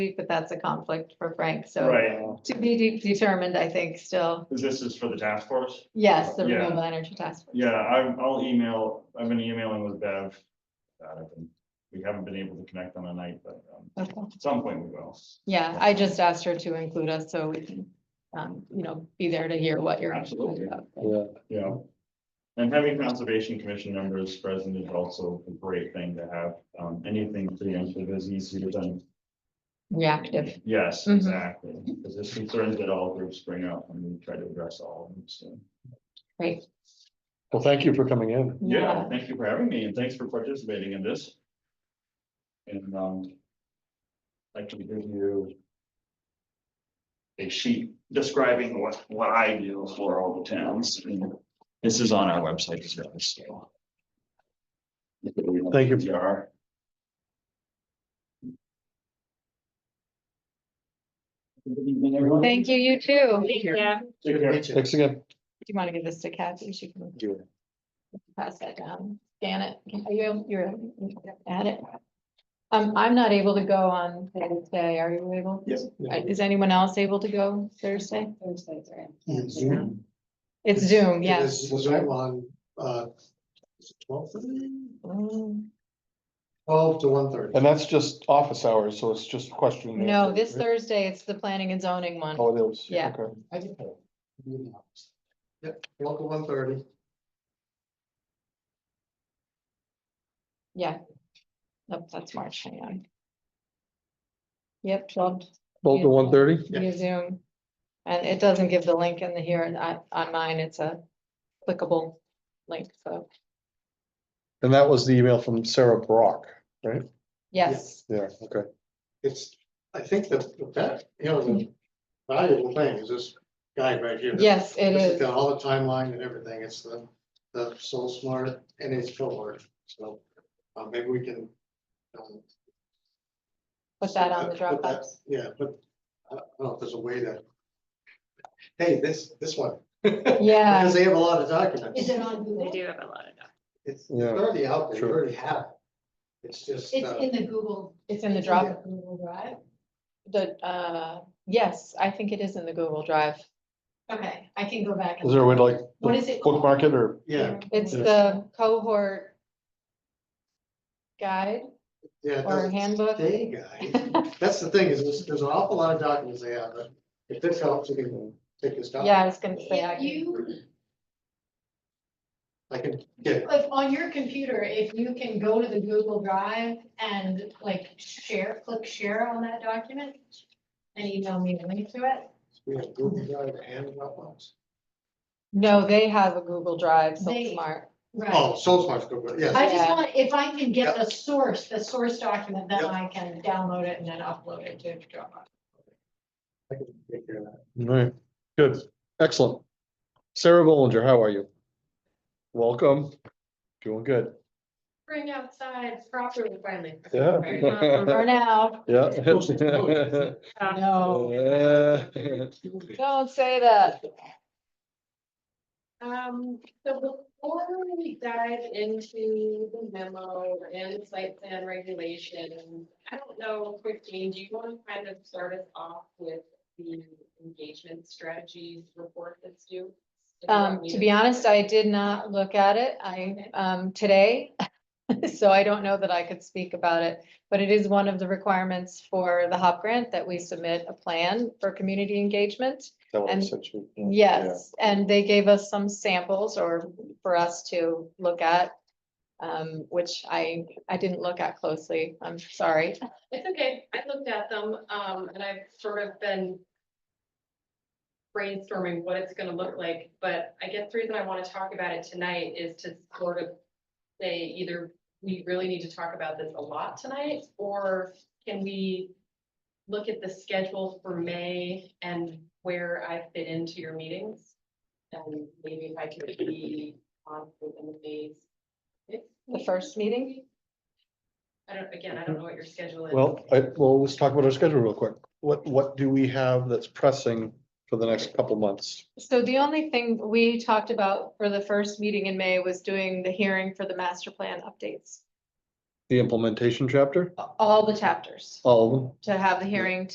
week, but that's a conflict for Frank, so uh, Right, to be de- determined, I think, still. this is for the task force. Yes, the Yeah. renewable energy task. Force. Yeah, I, I'll email, I've been emailing with Bev. about it, and We haven't been able to connect on a night, but um, Okay. at some point we will. Yeah, I just asked her to include us so we can, um, you know, be there to hear what you're. Absolutely. about. Yeah, Yeah. And having conservation commission members present is also a great thing to have. Um, anything preemptive is easier than. Reactive. Yes, Mhm. exactly. Because there's concerns that all groups bring up and we try to address all of them. So, Great. well, thank you for coming in. yeah, thank you for having me and thanks for participating in this. And, um. I can give you. A sheet describing what, what I do for all the towns. and This is on our website as well, so. Thank you. PR. Good evening, everyone. Thank you, you too. Do Take care. Thanks again. you want to give this to Kathy? She can pass that down, scan it. Are you, you're at it? Um, I'm not able to go on Thursday. Are you able? Yes. Uh, Is anyone else able to go Thursday? Thursday's right. Yeah, Zoom. It's Zoom, It yes. is Zoom on, uh, twelve Mm, to one thirty. And that's just office hours, so it's just question. and No, answer, this right? Thursday, it's the planning and zoning one. Oh, it is. Yeah. Okay. Yep, twelve to one thirty. Yeah. Nope, that's March, hang on. Yep, twelve Twelve to one thirty? Yeah. via Zoom. And it doesn't give the link in the here, and I- on mine, it's a clickable link, so, And that was the email from Sarah Brock. yes. Yeah, okay. It's, I think that, the fact, you know, the valuable thing is this guide right here. Yes, it This has is. Got all the timeline and everything. It's the, the Soul Smart and it's Philworth, so, uh, maybe we can. um, Put that on the put that- Dropbox. Yeah, but I don't know if there's a way to. Hey, this, this one. Yeah, Because they have a lot of documents. Uh, Is it on They Google? do have a lot of docs. It's it's Yeah, already out there, you sure. already have it. It's just, It's uh, in the Google. it's in the it's drop, Google Drive. the, uh, yes, I think it is in the Google Drive. Okay, I can go back. and- Is there a way to like What is it? called? bookmark it or? yeah, It's Yes. the cohort guide yeah. it or doesn't handbook. Stay guy. That's the thing, is there's, there's an awful lot of documents they have, but if this helps, you can take this down. Yeah, I was gonna say, I If can, you, I can get, like, on your computer, if you can go to the Google Drive and like share, click share on that document and email me the link to it, we have Google Drive and Dropbox. no, they have a Google Drive, so They- smart. right? Oh, Soul Smart's Google, yes, I just Yeah. want, if I can get the source, the source document, then I can download it and then upload it to Dropbox. I can take care of that. Right, good, excellent. Sarah Bollinger, how are you? Welcome. Doing good. Bring outside properly finally. Yeah. For now, Yeah. no, Uh, don't say that. Um, so before we dive into the memo and site plan regulations, I don't know, Christine, do you want to kind of start us off with the engagement strategies report that's due? If you want Um, me to be honest, I did not look at it, I, um, today. So I don't know that I could speak about it, but it is one of the requirements for the HOP grant that we submit a plan for community engagement. That one I And- sent you. Yes, and they gave us some samples or for us to look at. Um, which I, I didn't look at closely, I'm sorry. It's okay. I looked at them, um, and I've sort of been brainstorming what it's gonna look like, but I guess the reason I wanna talk about it tonight is to sort of say either we really need to talk about this a lot tonight, or can we look at the schedule for May and where I fit into your meetings? And maybe if I could be on in the May. The first meeting? I don't, again, I don't know what your schedule is. Well, I, well, let's talk about our schedule real quick. What, what do we have that's pressing for the next couple months? So the only thing we talked about for the first meeting in May was doing the hearing for the master plan updates. the implementation chapter, all the chapters, all of them? to have the hearing,